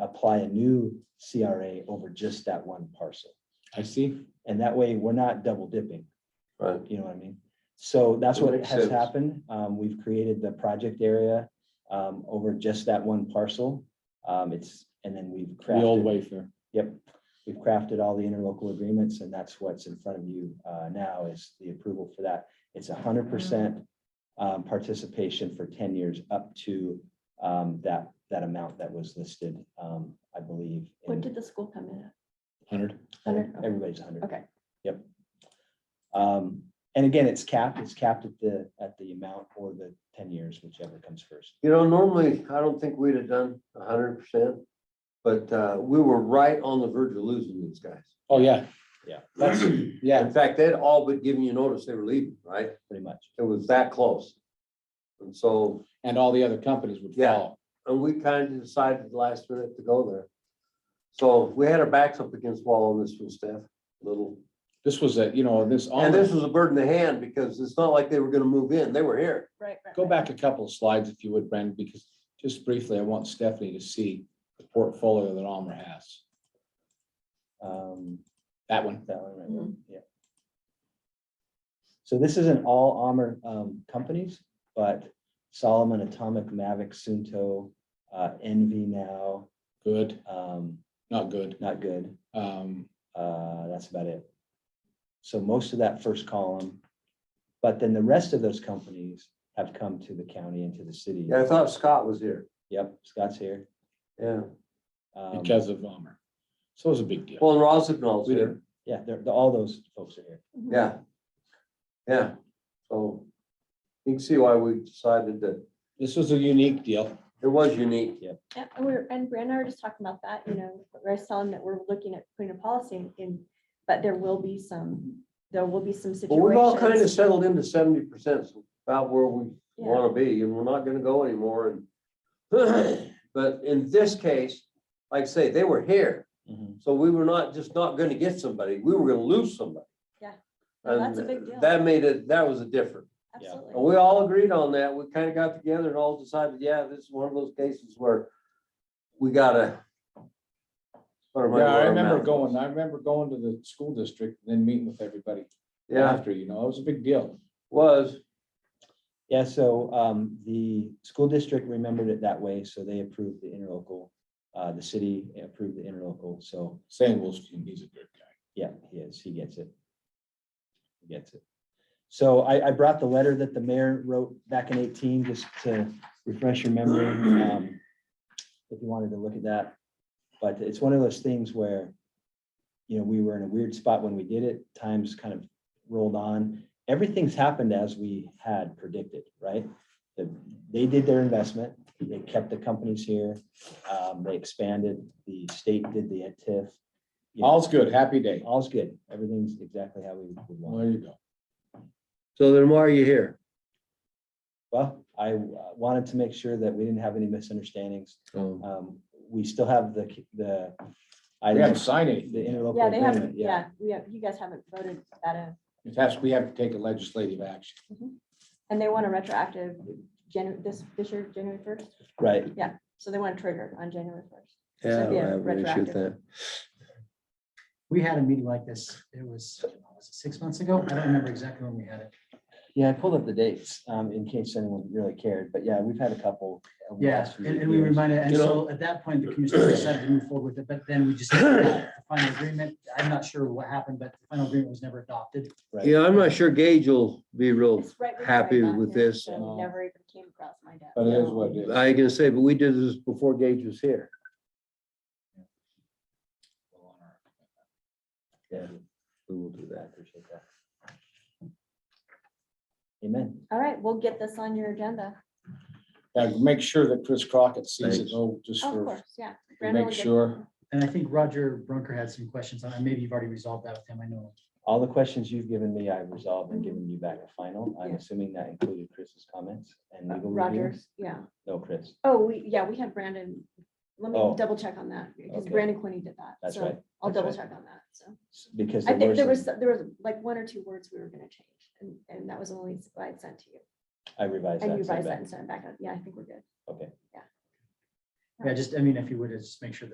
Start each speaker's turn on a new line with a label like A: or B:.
A: apply a new CRA over just that one parcel.
B: I see.
A: And that way, we're not double dipping,
C: Right.
A: you know what I mean? So that's
C: That
A: what
C: makes
A: has
C: sense.
A: happened. Um, we've created the project area um, over just that one parcel. Um, it's, and then we've
B: The old
A: crafted,
B: Wayfair.
A: yep. We've crafted all the interlocal agreements and that's what's in front of you uh, now is the approval for that. It's a
D: Mm.
A: hundred percent um, participation for ten years up to um, that, that amount that was listed, um, I believe.
D: What
A: in-
D: did the school come in at?
B: Hundred.
D: Hundred? Okay.
A: Everybody's hundred.
D: Okay.
A: Yep. Um, and again, it's capped, it's capped at the, at the amount or the ten years, whichever comes first.
C: You know, normally, I don't think we'd have done a hundred percent, but uh, we were right on the verge of losing these guys.
B: Oh, yeah,
A: Yeah,
B: that's, yeah,
C: In fact, they'd all but given you notice they were leaving, right?
A: pretty much.
C: It was that close. And so,
B: and all the other companies would
C: Yeah.
B: follow.
C: and we kind of decided last minute to go there. So we had our backs up against wall on this one, Steph, little.
B: This was a, you know, this, all
C: And this was a bird in the hand because it's not like they were gonna move in. They were here.
D: Right, right.
B: go
D: right.
B: back a couple of slides if you would, Brandon, because just briefly, I want Stephanie to see the portfolio that Almer has.
A: Um,
B: That one.
A: that one, right,
D: Mhm.
A: yeah. So this isn't all armor, um, companies, but Solomon, Atomic, Mavic, Sunto, uh, Envy now,
B: Good,
A: um,
B: not good.
A: not good.
B: Um,
A: Uh, that's about it. So most of that first column, but then the rest of those companies have come to the county and to the city.
C: Yeah, I thought Scott was here.
A: Yep, Scott's here.
C: Yeah.
A: Um,
B: because of Almer. So it was a big deal.
C: Well, and Rosignol's
B: We
C: here.
B: didn't-
A: Yeah, they're, they're- all those folks are here.
D: Mhm.
C: Yeah. Yeah. So you can see why we decided that
B: This was a unique deal.
C: it was unique.
D: Yeah, and we're, and Brad and I were just talking about that, you know, we're telling that we're looking at putting a policy in- in, but there will be some, there will be some
C: But
D: situations.
C: we've all kind of settled into seventy percent, about where we
D: Yeah.
C: want to be, and we're not gonna go anymore. And But in this case, like I say, they were here, so we were not, just not gonna get somebody, we were gonna lose somebody.
D: Yeah. No,
C: And
D: that's a big deal.
C: that made it, that was a difference. And
D: Absolutely.
C: we all agreed on that. We kind of got together and all decided, yeah, this is one of those cases where we gotta. put our money
B: Yeah, I
C: where our
B: remember
C: mouth
B: going,
C: is.
B: I remember going to the school district, and then meeting with everybody
C: Yeah,
B: after, you know, it was a big deal.
C: was,
A: Yeah, so, um, the school district remembered it that way, so they approved the interlocal. Uh, the city approved the interlocal, so,
B: Saying Wolfstein, he's a good guy.
A: yeah, he is, he gets it. He Gets it. So I, I brought the letter that the mayor wrote back in eighteen, just to refresh your memory. um, If you wanted to look at that, but it's one of those things where. You know, we were in a weird spot when we did it, times kind of rolled on, everything's happened as we had predicted, right? The- They did their investment, they kept the companies here, um, they expanded, the state did the TIF. You know,
B: All's good, happy day.
A: All's good, everything's exactly how we would
B: Well,
A: want.
B: there you go.
C: so then why are you here?
A: Well, I uh, wanted to make sure that we didn't have any misunderstandings.
C: Oh.
A: Um, we still have the, the.
B: We haven't
A: items,
B: signed
A: The
B: anything. yet.
A: interlocal
D: Yeah, they
A: agreement,
D: haven't,
A: yeah.
D: yeah, we have, you guys haven't voted that in,
B: It has, we have to take a legislative action.
D: and they want a retroactive January, this, this year, January first,
A: Right,
D: so they want a trigger on January first.
C: Yeah,
D: Yeah,
C: I appreciate
D: retroactive.
C: that.
E: We had a meeting like this, it was, was it six months ago? I don't remember exactly when we had it.
A: yeah, I pulled up the dates, um, in case anyone really cared, but yeah, we've had a couple. over the
E: Yeah,
A: last few
E: and, and we
A: years.
E: reminded, and
C: You know-
E: so at that point, the commissioner decided to move forward with it, but then we just had the final agreement. I'm not sure what happened, but the final agreement was never adopted.
A: Right.
C: Yeah, I'm not sure Gage will be real
D: It's right before I
C: happy
D: got
C: with
D: here,
C: this.
D: so it Never even came across my desk.
B: But it is what it is.
C: I ain't gonna say, but we did this before Gage was here. Yeah, we will do
A: I appreciate that. Amen.
D: All right, we'll get this on your agenda.
B: Yeah, make sure that Chris Crockett sees it,
C: Thanks.
B: though, just
D: Oh, Of
B: for,
D: course, yeah.
B: to
D: Brandon will
B: make
D: get-
B: sure.
E: And I think Roger Brunker had some questions on it. Maybe you've already resolved that with him, I know.
A: All the questions you've given me, I've resolved and given you back a final. I'm
D: Mm-hmm. Yeah.
A: assuming that included Chris's comments and legal review.
D: Rogers, yeah.
A: No, Chris,
D: Oh, we, yeah, we had Brandon. Let me
A: Oh.
D: double check on that because
A: Okay.
D: Brandon Quinney did that.
A: That's
D: so
A: right,
D: I'll
A: that's
D: double
A: right.
D: check on that. So
A: because.
D: I think
A: were
D: there was,
A: some-
D: there was like one or two words we were gonna change and, and that was the only I had sent to you.
A: I revised that.
D: And you
A: and sent
D: revised
A: back.
D: that and sent it back. Yeah, I think we're good.
A: Okay.
E: Yeah, just, I mean, if you would, just make sure that